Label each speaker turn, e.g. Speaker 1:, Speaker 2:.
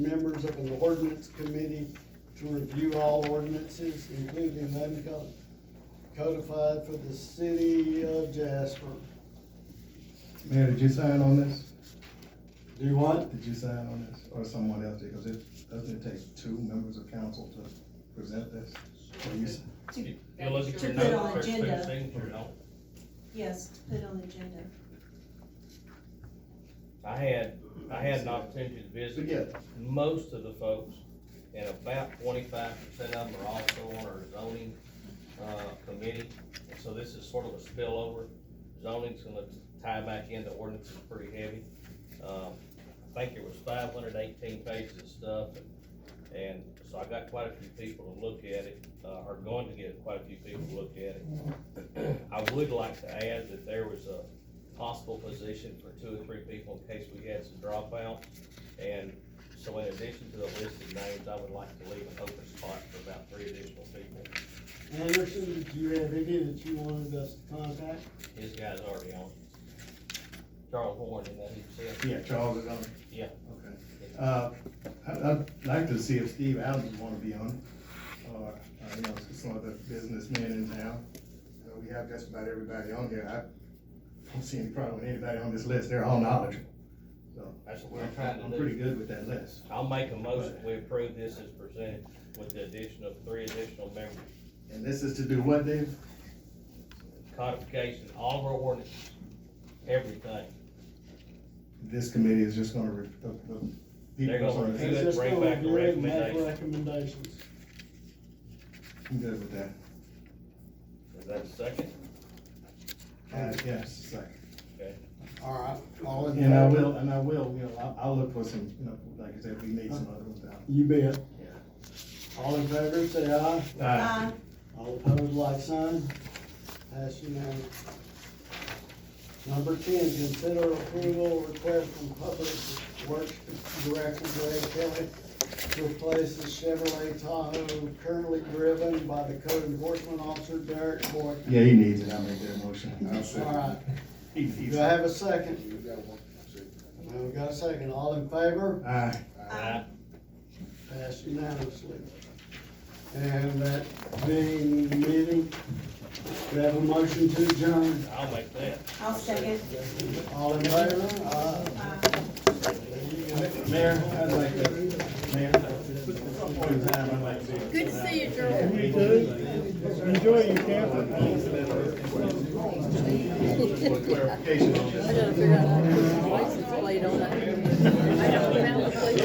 Speaker 1: members of an ordinance committee to review all ordinances, including them co- codified for the city of Jasper.
Speaker 2: Mayor, did you sign on this?
Speaker 1: Do what?
Speaker 2: Did you sign on this, or someone else did, because it, doesn't it take two members of council to present this? Or you s-
Speaker 3: To
Speaker 4: You look at your
Speaker 3: To put
Speaker 4: note,
Speaker 3: on
Speaker 4: first thing,
Speaker 3: agenda,
Speaker 4: signature, no.
Speaker 3: yes, to put on agenda.
Speaker 4: I had, I had an opportunity to
Speaker 1: So,
Speaker 4: visit
Speaker 1: yeah,
Speaker 4: most of the folks, and about twenty-five percent of them are also on our zoning, uh, committee. And So this is sort of a spillover, zoning's gonna tie back into ordinances pretty heavy. Um, I think it was five hundred eighteen pages of stuff, and, and so I got quite a few people to look at it, uh, are going to get quite a few people to look at it. I would like to add that there was a possible position for two or three people in case we had some dropouts. And so in addition to the list of names, I would like to leave an open spot for about three additional people.
Speaker 1: Anderson, did you have any that you wanted us to contact?
Speaker 4: His guy's already on. Charles Horn, and that he said,
Speaker 2: Yeah, Charles is on. it?
Speaker 4: Yeah.
Speaker 2: Okay. Uh, I'd, I'd like to see if Steve Allen would wanna be on, it, or, uh, you know, some of the businessmen in town. Uh, we have just about everybody on here, I don't see any problem with anybody on this list, they're all knowledgeable. So,
Speaker 4: that's what
Speaker 2: I'm,
Speaker 4: we're trying
Speaker 2: I'm
Speaker 4: to
Speaker 2: pretty
Speaker 4: do.
Speaker 2: good with that list.
Speaker 4: I'll make a motion, we approve this as presented with the addition of three additional members.
Speaker 2: And this is to do what, Dave?
Speaker 4: Codification, all of our ordinances, everything.
Speaker 2: This committee is just gonna, re- the, the.
Speaker 4: They're gonna
Speaker 2: people on
Speaker 4: review
Speaker 2: this-
Speaker 4: it. bring back
Speaker 1: Just
Speaker 4: the
Speaker 1: go review it and make Recommendations.
Speaker 4: recommendations.
Speaker 2: I'm good with that.
Speaker 4: Is that a second?
Speaker 2: Uh, yes, it's like-
Speaker 1: All right, all in
Speaker 2: and I
Speaker 1: favor?
Speaker 2: will, and I will, you know, I'll, I'll look for some, you know, like I said, we need some other ones out.
Speaker 1: You bet. All in favor, say aye.
Speaker 3: Uh,
Speaker 1: All opposed, like sign. Pass unanimous. Number ten, consider approval request from Public Works Director Greg Kelly to replace the Chevrolet Tahoe currently driven by the code enforcement officer Derek Boyd.
Speaker 2: Yeah, he needs it, I'll make that motion. I'll
Speaker 1: All right,
Speaker 2: second. He needs
Speaker 1: do
Speaker 2: it.
Speaker 1: I have a second? No, we got a second. All in favor?
Speaker 2: Aye.
Speaker 4: Aye.
Speaker 1: Passed unanimously. And that being the meeting, we have a motion to adjourn.
Speaker 4: I'll make that.
Speaker 3: I'll second.
Speaker 1: All in favor? Aye.
Speaker 3: Uh,
Speaker 2: Mayor, I'd like to, Mayor, point in time, I'd like to. be-
Speaker 5: Good to see you, Joel.
Speaker 6: You too. Enjoy your camping.
Speaker 2: For clarification on this.
Speaker 5: I gotta figure out how to put my license plate on it. I don't